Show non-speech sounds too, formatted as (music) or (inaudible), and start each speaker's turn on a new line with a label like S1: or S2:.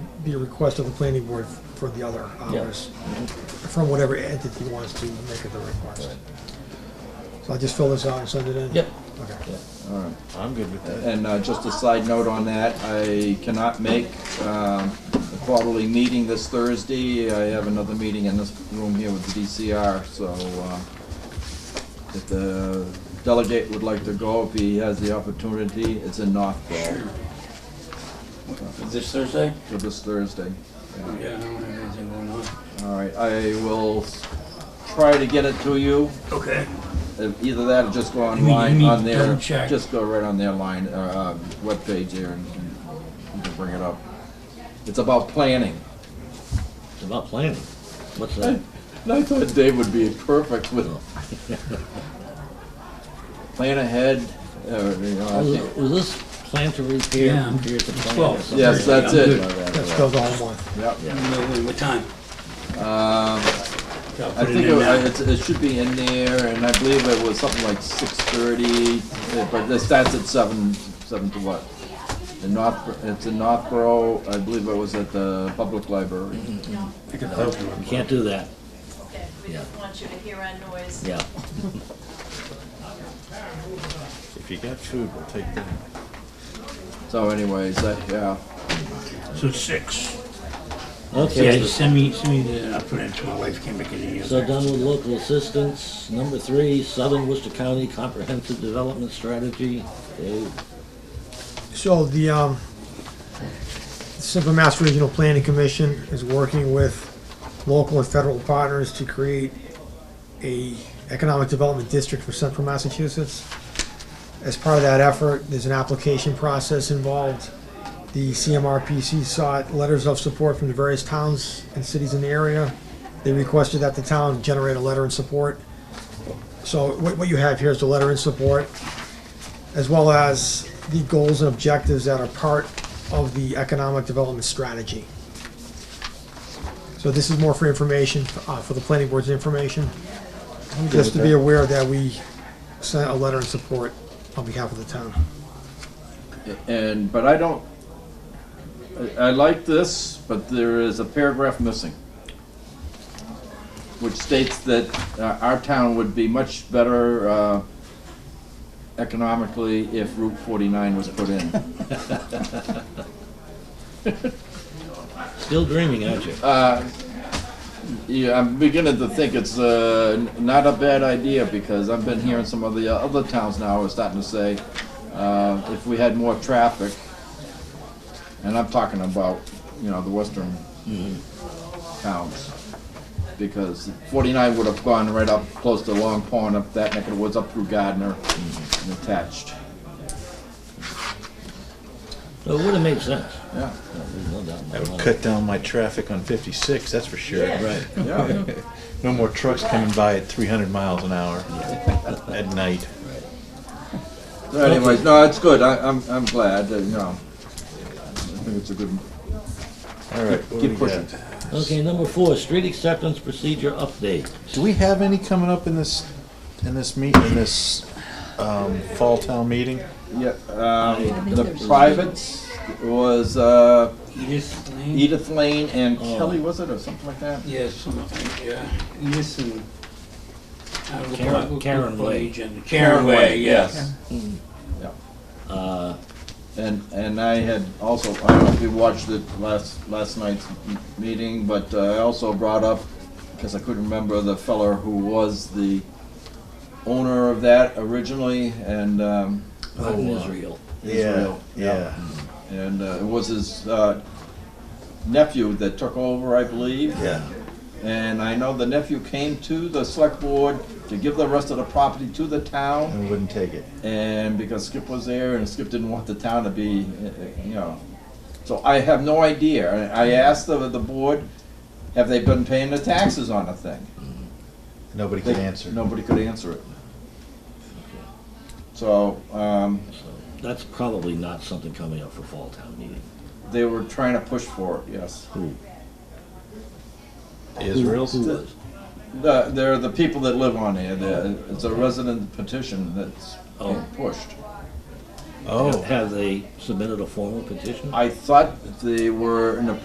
S1: be a request of the planning board for the other hours, from whatever entity wants to make it the request. So I just fill this out and send it in?
S2: Yep.
S1: Okay.
S3: all right.
S4: I'm good with that.
S3: And uh, just a side note on that, I cannot make um, the quarterly meeting this Thursday. I have another meeting in this room here with the DCR, so uh, if the delegate would like to go, if he has the opportunity, it's in Northborough
S2: Is this Thursday?
S3: for this Thursday.
S2: Oh, Yeah, I don't have anything going on.
S3: All right, I will s- try to get it to you.
S2: Okay.
S3: Uh, Either that or just go
S2: You mean- you
S3: online
S2: mean
S3: on their,
S2: double check?
S3: just go right on their line, uh, um, webpage there and and you can bring it up. It's about planning.
S4: It's about planning. What's that?
S3: And (laughs) I thought Dave would be perfect with. (laughs) Plan ahead, uh, you know, I
S4: Was,
S3: think-
S4: was this plan to repair?
S2: Yeah.
S4: repair to plan or
S2: Well,
S4: something?
S3: yes, that's it.
S1: That's filled all in one.
S3: Yep.
S2: What time?
S3: Um,
S2: I'll
S3: I
S2: put it
S3: think
S2: in
S3: it,
S2: now.
S3: it's- it should be in there, and I believe it was something like six thirty, eh, but it starts at seven, seven to what? In North, it's in Northborough, I believe it was at the public library.
S2: Mm-hmm.
S4: You can't do that,
S5: Okay, we just want you to hear our noise.
S4: yeah.
S6: If you got food, we'll take that.
S3: So anyways, that, yeah,
S2: So it's six. Yeah,
S4: Okay,
S2: just send me, send me the, I'll put it into my wife, came back in the
S4: so done with local assistance. Number three, Southern Worcester County Comprehensive Development Strategy. They-
S1: So the, um, Simple Mass Regional Planning Commission is working with local and federal partners to create a economic development district for central Massachusetts. As part of that effort, there's an application process involved. The CMRPC sought letters of support from the various towns and cities in the area. They requested that the town generate a letter in support. So what, what you have here is the letter in support as well as the goals and objectives that are part of the economic development strategy. So this is more for information, uh, for the planning board's information. Just to be aware that we sent a letter in support on behalf of the town.
S3: and, but I don't, I, I like this, but there is a paragraph missing. Which states that uh, our town would be much better, uh, economically if Route forty-nine was put in.
S4: Still dreaming, aren't you?
S3: Uh, Yeah, I'm beginning to think it's uh, n- not a bad idea because I've been hearing some of the uh, other towns now are starting to say, uh, if we had more traffic, and I'm talking about, you know, the western towns, because 49 would have gone right up close to Long Pond, up that neck of the woods, up through Gardner, and attached.
S4: So it would have made sense.
S3: Yeah,
S4: No, there's no doubt
S6: That
S4: about
S6: would
S4: it.
S6: cut down my traffic on 56, that's for sure.
S4: Right.
S3: yeah.
S6: No more trucks coming by at 300 miles an hour at night.
S3: So (laughs) anyways, no, it's good. I, I'm, I'm glad, that, you know. I think it's a good,
S6: All right, what do
S3: keep
S6: we
S3: pushing.
S6: got?
S4: Okay, number four, street acceptance procedure update.
S6: Do we have any coming up in this, in this meet, in this um, fall town meeting?
S3: Yeah, um, the privates was, uh,
S2: Edith Lane?
S3: Edith Lane and Kelly, was it, or something like that?
S2: Yes, something, yeah. Edith and. uh, I don't know,
S4: Karen-
S2: what- what-
S4: Karen
S2: what
S4: Way.
S2: agenda- Karen Way, yes.
S4: Uh,
S3: And, and I had also, I don't know if you watched it last, last night's m- meeting, but uh, I also brought up, because I couldn't remember the feller who was the owner of that originally, and, um,
S4: out in Israel.
S3: Israel.
S6: Yeah,
S3: and uh, it was his, uh, nephew that took over, I believe.
S6: yeah.
S3: And I know the nephew came to the select board to give the rest of the property to the town,
S6: And we wouldn't take it.
S3: and because Skip was there, and Skip didn't want the town to be, uh, uh, you know. So I have no idea. I I asked the, the board, have they been paying the taxes on the thing?
S6: Nobody
S3: They-
S6: could answer.
S3: Nobody could answer it. So, um,
S4: So That's probably not something coming up for fall town meeting.
S3: they were trying to push for it, yes.
S4: Who?
S6: Israel's?
S4: Who was?
S3: The, they're the people that live on here, the, it's a resident petition that's being
S4: Oh.
S3: pushed.
S6: Oh.
S3: Oh.
S4: Have they submitted a formal petition?
S3: I thought they were in the